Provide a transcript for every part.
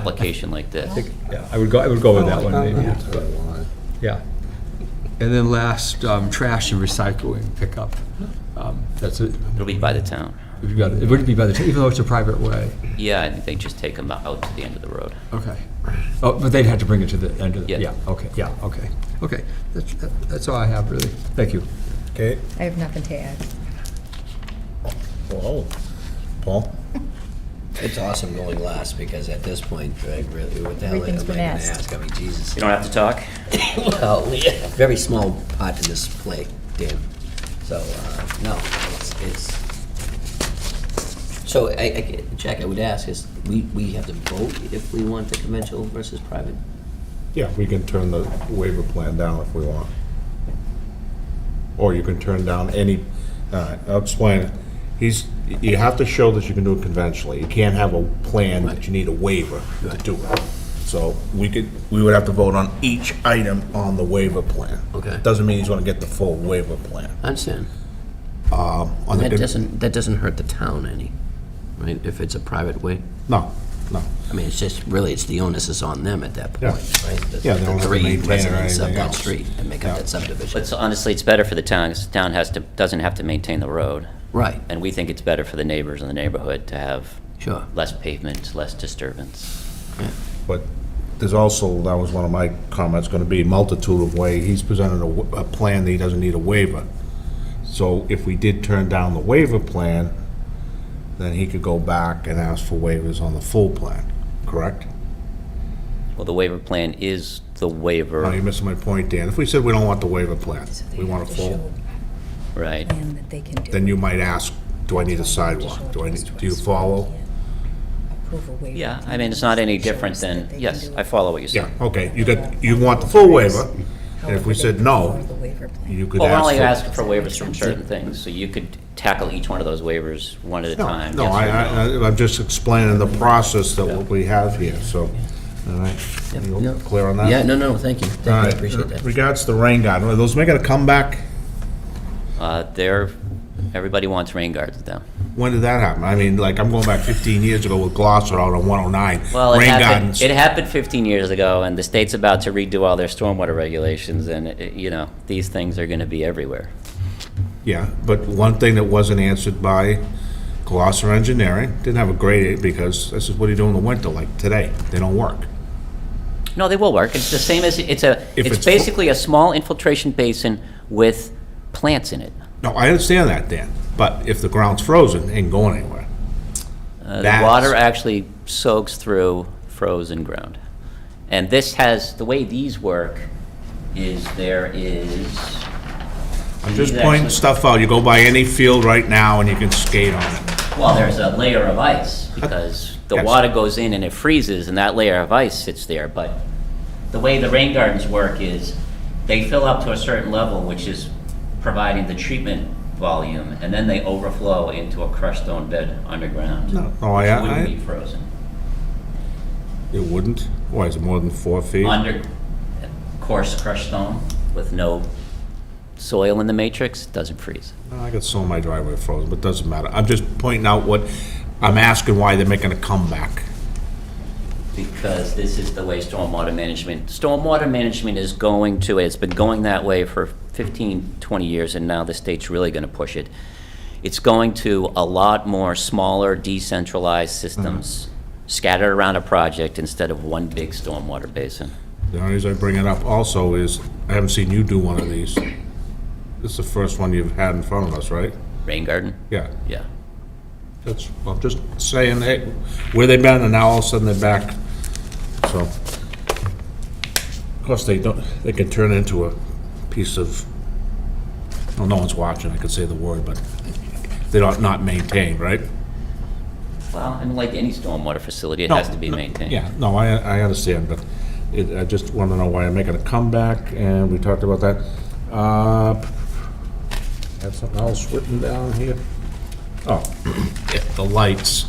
application like this. Yeah, I would go, I would go with Oh, that one, maybe. Yeah. And then last, um, trash and recycling pickup. Um, That's it. It'll be by the town. We've got, it wouldn't be by the, even though it's a private way. Yeah, I think they just take them out to the end of the road. Okay. Oh, but they'd have to bring it to the end of the, Yeah. yeah, okay, yeah, okay. Okay, that's, that- that's all I have, really. Thank you. Okay, I have nothing to add. well, Paul? It's awesome going last because at this point, I really, what the hell am I Everything's gonna been asked. ask? I mean, Jesus. You don't have to talk? Well, yeah, very small part to this play, Dan. So, uh, no, it's, it's, so I, I, Jack, I would ask is, we, we have to vote if we want the conventional versus private? Yeah, we can turn the waiver plan down if we want. Or you can turn down any, uh, I'll explain. He's, you have to show that you can do it conventionally. You can't have a plan that you need a waiver to do it. So we could, we would have to vote on each item on the waiver plan. Okay. Doesn't mean he's gonna get the full waiver plan. I understand. On the- That doesn't, that doesn't hurt the town any, right, if it's a private way? No, no. I mean, it's just, really, it's the onus is on them at that Yeah. point, right? The- Yeah, they don't have to The three maintain or residents of anything that else. street that make up Yeah. that subdivision. But so honestly, it's better for the town, 'cause the town has to, doesn't have to maintain the road. Right, And we think it's better for the neighbors in the neighborhood to have sure. less pavement, less disturbance. But there's also, that was one of my comments, going to be multitude of way, he's presented a, w- a plan that he doesn't need a waiver. So if we did turn down the waiver plan, then he could go back and ask for waivers on the full plan, correct? Well, the waiver plan is the Oh, waiver, you're missing my point, Dan. If we said we don't want the waiver plan, we want a full, right? And that they can do. then you might ask, do I need a sidewalk? Do I need, do you follow? Approve a waiver Yeah, plan I mean, it's not any that shows different that than, they can yes, do I it. follow what you're Yeah, saying. okay, you could, you want the full waiver, and if However, we they said can no, approve the waiver plan. you could Well, we're ask. only for- asking for waivers from certain things, so you could tackle each one of those waivers one at a No, time. no, yes or I, I, I'm just explaining the process that what we have here, so, all right, you Yeah. clear on that? Yeah, no, no, thank you. All Thank you, I right, appreciate that. regards to the rain garden, are those making a comeback? Uh, They're, everybody wants rain gardens now. When did that happen? I mean, like, I'm going back fifteen years ago with Gloucester out on one oh nine, Well, it rain happened, gardens. it happened 15 years ago, and the state's about to redo all their stormwater regulations, and, it- you know, these things are going to be everywhere. Yeah, but one thing that wasn't answered by Gloucester Engineering, didn't have a grade because this is what do you do in the winter, like today, they don't work. No, they will work. It's the same as, it's a, If it's it's full- basically a small infiltration basin with plants in it. No, I understand that, Dan, but if the ground's frozen, it ain't going anywhere. Uh, The That's- water actually soaks through frozen ground. And this has, the way these work is there is, I'm just These pointing actually- stuff out. You go by any field right now and you can skate on it. well, there's a layer of ice because the Yes. water goes in and it freezes and that layer of ice sits there. But the way the rain gardens work is they fill up to a certain level, which is providing the treatment volume, and then they overflow into a crushed stone bed underground. No. Oh, I- It Wouldn't I- be frozen. It wouldn't? Why, is it more than four feet? under coarse crushed stone with no soil in the matrix, doesn't freeze. I got some of my driveway frozen, but it doesn't matter. I'm just pointing out what, I'm asking why they're making a comeback. Because this is the way stormwater management, stormwater management is going to, it's been going that way for 15, 20 years, and now the state's really going to push it. It's going to a lot more smaller decentralized systems Mm-hmm. scattered around a project instead of one big stormwater basin. The only reason I bring it up also is, I haven't seen you do one of these. This is the first one you've had in front of us, right? Rain garden? Yeah, Yeah. that's, I'm just saying, hey, where they been and now all of a sudden they're back, so. Of course, they don't, they can turn into a piece of, well, no one's watching, I could say the word, but they're not, not maintained, right? Well, and like any stormwater facility, it has to be maintained. Yeah, no, I, I understand, but it, I just want to know why I'm making a comeback, and we talked about that. Uh, Have something else written down here? Oh, yeah, the lights.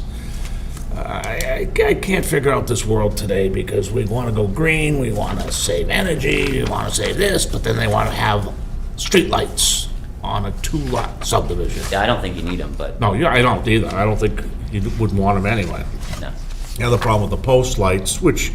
I, I I can't figure out this world today, because we want to go green, we want to save energy, we want to save this, but then they want to have streetlights on a two-lot subdivision. Yeah, I don't think you need them, but, No, yeah, I don't either, I don't think you would want them anyway. no. The other problem with the post lights, which